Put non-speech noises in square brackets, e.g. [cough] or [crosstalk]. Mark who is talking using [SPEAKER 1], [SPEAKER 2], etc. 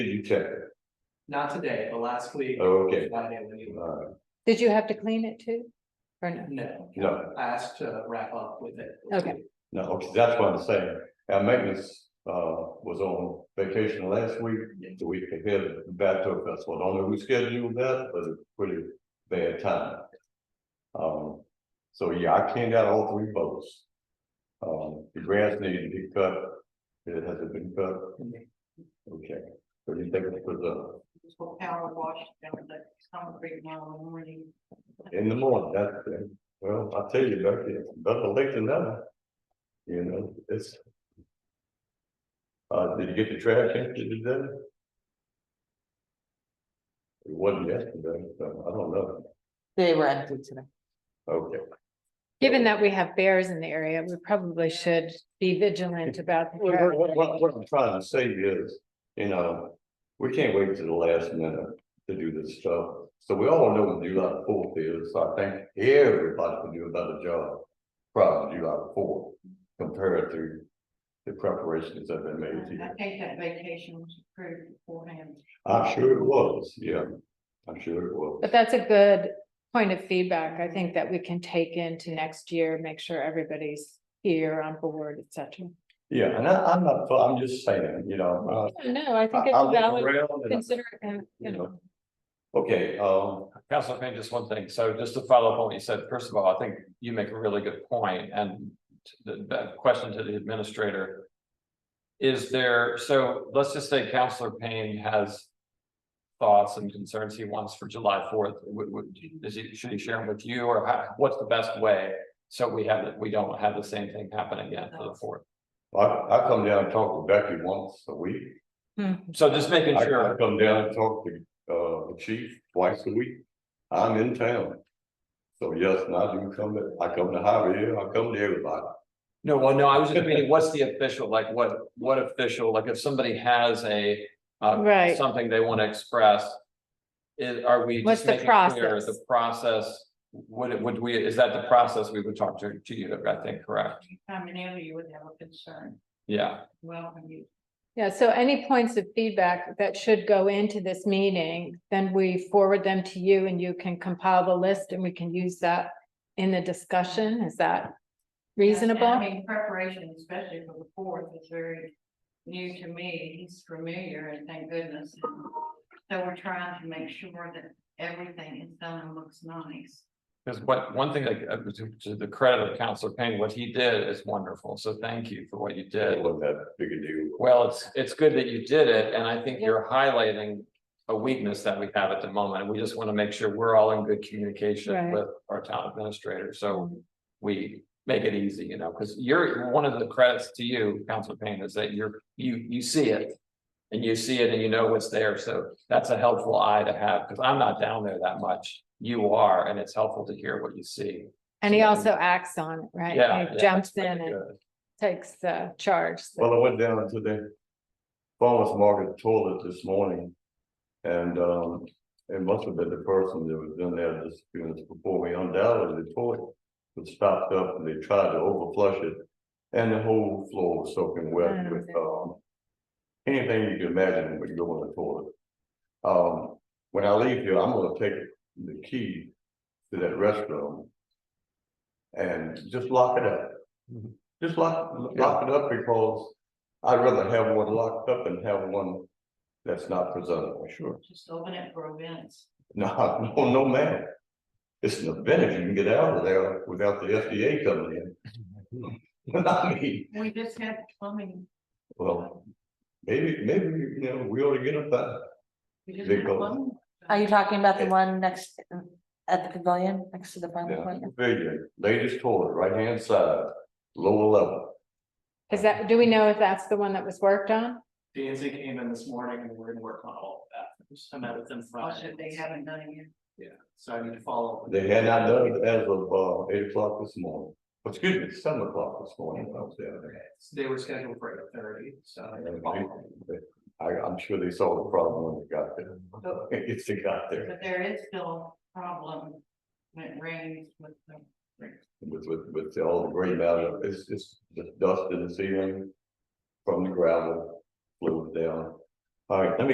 [SPEAKER 1] You check,
[SPEAKER 2] Not today, but last week.
[SPEAKER 1] Oh, okay.
[SPEAKER 2] Friday when you-
[SPEAKER 1] uh,
[SPEAKER 3] Did you have to clean it too? Or no?
[SPEAKER 2] No,
[SPEAKER 1] no,
[SPEAKER 2] I asked to wrap up with it.
[SPEAKER 3] Okay.
[SPEAKER 1] no, okay, that's what I'm saying, our maintenance, uh, was on vacation last week, the week ahead of the Bato Festival, I don't know who scheduled that, but it's pretty bad time. Um, so yeah, I cleaned out all three boats. Um, the grass needed to be cut, it hasn't been cut, okay, so you think it was, uh,
[SPEAKER 4] for power wash down at the concrete now in the morning.
[SPEAKER 1] In the morning, that's, the- well, I tell you, Becky, it's better late than never. You know, it's. Uh, did you get the trash empty today? It wasn't yesterday, so I don't know.
[SPEAKER 5] They were empty today.
[SPEAKER 1] Okay,
[SPEAKER 3] Given that we have bears in the area, we probably should be vigilant about. the
[SPEAKER 1] what, what-
[SPEAKER 3] traffic.
[SPEAKER 1] what- what I'm trying to say is, you know, we can't wait to the last minute to do this stuff. So we all know when July fourth is, so I think everybody can do a better job prior to July fourth compared to the preparations that have been made
[SPEAKER 4] And I
[SPEAKER 1] here.
[SPEAKER 4] think that vacation was approved beforehand.
[SPEAKER 1] I'm sure it was, yeah, I'm sure it was.
[SPEAKER 3] But that's a good point of feedback, I think that we can take into next year, make sure everybody's here on board, et cetera.
[SPEAKER 1] Yeah, and I, I'm not, I'm just saying, you know,
[SPEAKER 3] No, I
[SPEAKER 1] I,
[SPEAKER 3] think it's
[SPEAKER 1] I
[SPEAKER 3] a
[SPEAKER 1] look
[SPEAKER 3] valid,
[SPEAKER 1] around and,
[SPEAKER 3] consider, it, you know.
[SPEAKER 1] okay, um,
[SPEAKER 6] Council Payne, just one thing. So just to follow up on what you said, first of all, I think you make a really good point and the, the question to the administrator. Is there, so let's just say Councilor Payne has thoughts and concerns he wants for July fourth. Would, would, is he, should he share them with you or how- what's the best way? So we have, we don't have the same thing happen again for the fourth.
[SPEAKER 1] I, I come down and talk to Becky once a week.
[SPEAKER 6] So just making
[SPEAKER 1] I
[SPEAKER 6] sure.
[SPEAKER 1] I come down and talk to uh the chief twice a week. I'm in town. So yes, and I do come, to- I come to Javier, I come to everybody.
[SPEAKER 6] No, well, no, I was just meaning, what's the official, like, what, what official, like, if somebody has a, uh,
[SPEAKER 3] Right.
[SPEAKER 6] something they want to express. Is, are we
[SPEAKER 3] What's
[SPEAKER 6] just
[SPEAKER 3] the
[SPEAKER 6] making clear
[SPEAKER 3] process?
[SPEAKER 6] the process, would it, would we, is that the process we would talk to, to you, I think, correct?
[SPEAKER 4] Coming in, you would have a concern.
[SPEAKER 6] Yeah,
[SPEAKER 4] Well, when you,
[SPEAKER 3] Yeah, so any points of feedback that should go into this meeting, then we forward them to you and you can compile the list and we can use that in the discussion. Is that
[SPEAKER 4] I
[SPEAKER 3] reasonable?
[SPEAKER 4] mean, preparation, especially for the fourth, is very new to me. He's familiar and thank goodness. So we're trying to make sure that everything is done and looks nice.
[SPEAKER 6] because what, one thing, like, uh, to, to the credit of Counselor Payne, what he did is wonderful, so thank you for what you did.
[SPEAKER 1] It wasn't that big a deal.
[SPEAKER 6] Well, it's, it's good that you did it, and I think you're highlighting a weakness that we have at the moment, and we just want to make sure we're all in good communication
[SPEAKER 3] Right. Mm-hmm.
[SPEAKER 6] with our town administrator, so we make it easy, you know, because you're, one of the credits to you, Council Payne, is that you're, you, you see it. And you see it and you know what's there, so that's a helpful eye to have, because I'm not down there that much, you are, and it's helpful to hear what you see.
[SPEAKER 3] And he also acts on it, right?
[SPEAKER 6] Yeah.
[SPEAKER 3] He
[SPEAKER 6] yeah,
[SPEAKER 3] Jumps
[SPEAKER 6] that's really
[SPEAKER 3] in and
[SPEAKER 6] good.
[SPEAKER 3] takes the charge. so-
[SPEAKER 1] Well, I went down to the farmer's market toilet this morning. And um, it must have been the person that was in there just a few minutes before me undoubtedly the toilet. Was stopped up and they tried to overflush it and the whole floor was soaking wet with um. Anything you can imagine when you go in the toilet. Um, when I leave here, I'm gonna take the key to that restroom. And just lock it up. Just lock, lock it up because I'd rather have one locked up than have one that's not presentable. Sure.
[SPEAKER 4] Just open it for events.
[SPEAKER 1] No, [laughs] no, no, ma'am. It's an event if you can get out of there without the FDA coming in. [laughs] I mean,
[SPEAKER 4] We just had plumbing.
[SPEAKER 1] well, maybe, maybe, you know, we ought to get up that.
[SPEAKER 4] We just
[SPEAKER 1] They
[SPEAKER 4] had
[SPEAKER 1] go-
[SPEAKER 4] plumbing.
[SPEAKER 5] Are you talking about the
[SPEAKER 1] Yeah.
[SPEAKER 5] one next um, at the pavilion, next to the farm
[SPEAKER 1] Yeah,
[SPEAKER 5] pavilion?
[SPEAKER 1] pavilion, ladies toilet, right hand side, lower level.
[SPEAKER 3] Is that, do we know if that's the one that was worked on?
[SPEAKER 2] D and Z came in this morning and we're gonna work on all of that. I met with them Friday.
[SPEAKER 4] Also, they haven't done it yet.
[SPEAKER 2] Yeah, so I need to follow. up.
[SPEAKER 1] They had not done it as of uh eight o'clock this morning. Excuse me, seven o'clock this morning, I was down there.
[SPEAKER 2] They were scheduled for eight thirty, so. I need to follow up.
[SPEAKER 1] I, I'm sure they saw the problem when they got there. It's [laughs] they got there
[SPEAKER 4] But there is still a problem when it rains with the.
[SPEAKER 1] with, with, with all the gray matter. It's just, just dust in the ceiling from the gravel, flew down. All right, let me